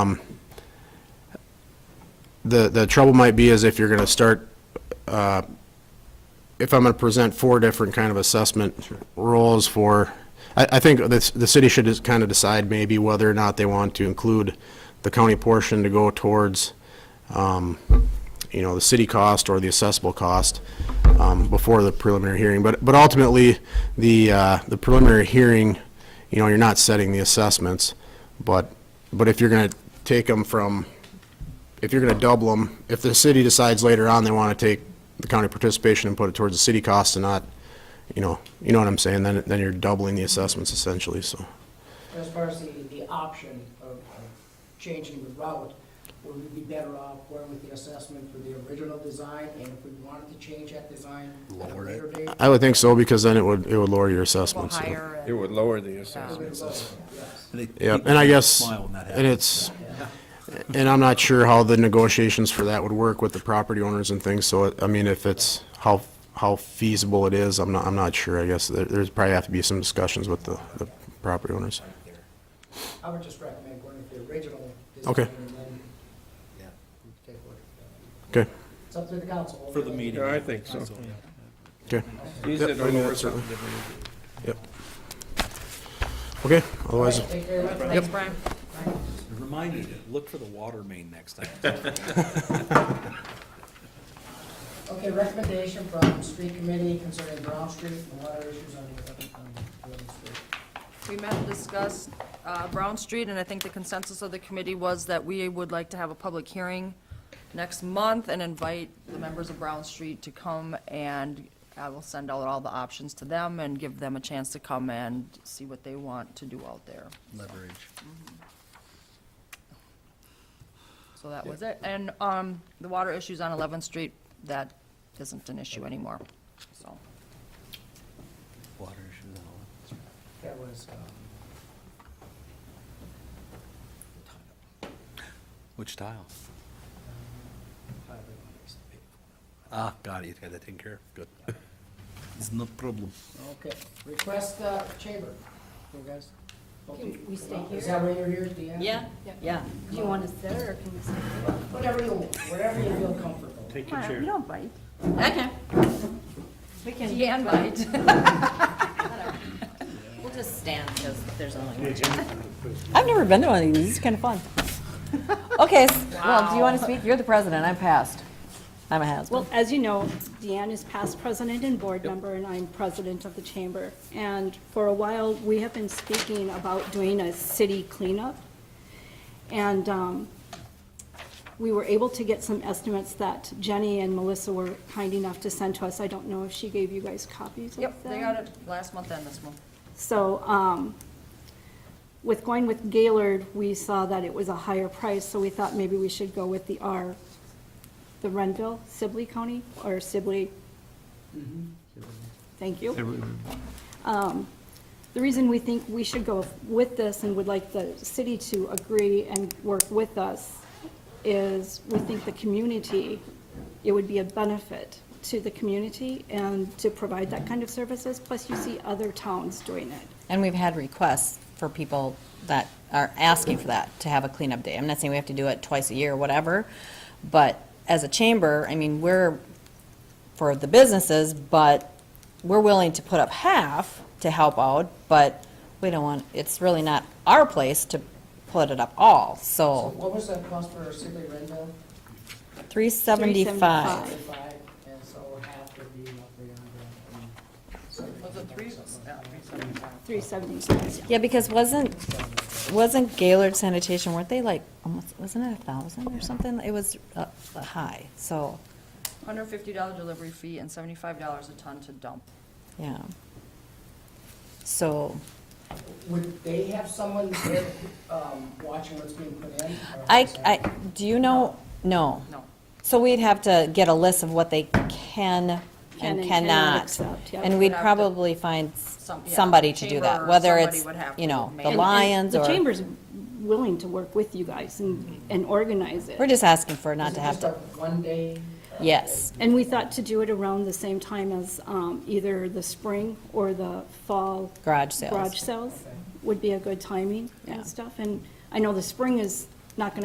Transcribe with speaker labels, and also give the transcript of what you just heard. Speaker 1: The, the trouble might be is if you're gonna start, uh, if I'm gonna present four different kind of assessment roles for, I, I think the, the city should just kind of decide maybe whether or not they want to include the county portion to go towards, um, you know, the city cost or the assessable cost um, before the preliminary hearing. But, but ultimately, the, uh, the preliminary hearing, you know, you're not setting the assessments, but, but if you're going to take them from, if you're going to double them, if the city decides later on they want to take the county participation and put it towards the city cost and not, you know, you know what I'm saying, then, then you're doubling the assessments essentially, so.
Speaker 2: As far as the, the option of of changing the route, would we be better off going with the assessment for the original design? And if we wanted to change that design at a later date?
Speaker 1: I would think so, because then it would, it would lower your
Speaker 3: Well,
Speaker 1: assessments. so.
Speaker 3: higher.
Speaker 4: It would lower the assessment.
Speaker 2: we would go with that, yes.
Speaker 1: Yeah, and I guess,
Speaker 5: Smile when that
Speaker 1: and it's,
Speaker 5: happens.
Speaker 1: and I'm not sure how the negotiations for that would work with the property owners and things, so, I mean, if it's, how, how feasible it is, I'm not, I'm not sure, I guess, there, there's probably have to be some discussions with the, the property owners.
Speaker 2: I would just recommend going with the original design.
Speaker 1: Okay.
Speaker 2: And then take a look at
Speaker 1: Okay,
Speaker 2: that. It's up to the council.
Speaker 5: For the meeting.
Speaker 4: Yeah, I think so.
Speaker 1: okay,
Speaker 4: Use
Speaker 1: Yep,
Speaker 4: it
Speaker 1: I mean,
Speaker 4: over
Speaker 1: that's
Speaker 4: something
Speaker 1: certainly-
Speaker 4: different.
Speaker 1: yep. Okay, otherwise,
Speaker 2: Thank you very much.
Speaker 3: Thanks, Brian.
Speaker 5: Remind me to look for the water main next time.
Speaker 2: Okay, recommendation from street committee concerning Brown Street and water issues on the, on Eleventh Street.
Speaker 3: We met and discussed uh, Brown Street, and I think the consensus of the committee was that we would like to have a public hearing next month and invite the members of Brown Street to come, and I will send out all the options to them and give them a chance to come and see what they want to do out there.
Speaker 6: leverage.
Speaker 3: So that was it. And um, the water issues on 11th Street, that isn't an issue anymore, so.
Speaker 6: Water issues and all
Speaker 2: That was, um,
Speaker 5: that. Which tile? Ah, got it, you had that taken care of, good. It's no problem.
Speaker 2: Okay, request, uh, chamber, you guys.
Speaker 7: Can we stay
Speaker 2: Is
Speaker 7: here?
Speaker 2: that where you're here at the end?
Speaker 7: Yeah, yeah. Do you want to sit or can we sit?
Speaker 2: Whatever you, wherever you feel comfortable.
Speaker 7: We don't bite.
Speaker 3: Okay.
Speaker 7: We can.
Speaker 3: Deanne might.
Speaker 7: We'll just stand because there's only one. I've never been to one of these. It's kind of fun. Okay, s- well, do you want to speak? You're the president. I'm past. I'm a has-been.
Speaker 8: Well, as you know, Deanne is past president and board member, and I'm president of the chamber. And for a while, we have been speaking about doing a city cleanup. And um, we were able to get some estimates that Jenny and Melissa were kind enough to send to us. I don't know if she gave you guys copies of them.
Speaker 3: Yep, they got it last month and this month.
Speaker 8: So um, with going with Gaylord, we saw that it was a higher price, so we thought maybe we should go with the R, the Renville, Sibley County, or Sibley. Thank you. Um, The reason we think we should go with this and would like the city to agree and work with us is we think the community, it would be a benefit to the community and to provide that kind of services, plus you see other towns doing it.
Speaker 9: And we've had requests for people that are asking for that, to have a cleanup day. I'm not saying we have to do it twice a year or whatever, but as a chamber, I mean, we're for the businesses, but we're willing to put up half to help out, but we don't want, it's really not our place to put it up all,
Speaker 2: So
Speaker 9: so
Speaker 2: what was the cost for Sibley Rendell?
Speaker 9: three seventy-five.
Speaker 8: Five.
Speaker 2: Five, and so half would be roughly a hundred.
Speaker 3: Was it three, yeah, three seventy-five?
Speaker 8: 376.
Speaker 9: Yeah, because wasn't, wasn't Gaylord sanitation, weren't they like, almost, wasn't it a thousand or something? It was, uh, high, so,
Speaker 3: Hundred fifty dollar delivery fee and seventy-five dollars a ton to dump.
Speaker 9: yeah. So,
Speaker 2: Would they have someone there, um, watching what's being put in? or
Speaker 9: I,
Speaker 2: is that-
Speaker 9: I, do you know, no.
Speaker 3: No.
Speaker 9: So we'd have to get a list of what they can
Speaker 8: Can
Speaker 9: and
Speaker 8: and cannot
Speaker 9: cannot.
Speaker 8: accept, yep.
Speaker 9: And
Speaker 3: We'd
Speaker 9: we'd
Speaker 3: have to-
Speaker 9: probably find s-
Speaker 3: Some- yeah,
Speaker 9: somebody to do
Speaker 3: chamber or
Speaker 9: that, whether
Speaker 3: somebody
Speaker 9: it's,
Speaker 3: would have to
Speaker 9: you know,
Speaker 3: make- And-
Speaker 9: the
Speaker 3: and
Speaker 9: Lions
Speaker 8: The
Speaker 9: or,
Speaker 8: chamber's willing to work with you guys and, and organize it.
Speaker 9: we're just asking for not
Speaker 2: Is it
Speaker 9: to have
Speaker 2: just
Speaker 9: to,
Speaker 2: a One day?
Speaker 9: yes.
Speaker 8: And we thought to do it around the same time as um, either the spring or the fall.
Speaker 9: Garage sales.
Speaker 8: Garage sales would be a good timing
Speaker 9: Yeah.
Speaker 8: and stuff. And I know the spring is not going to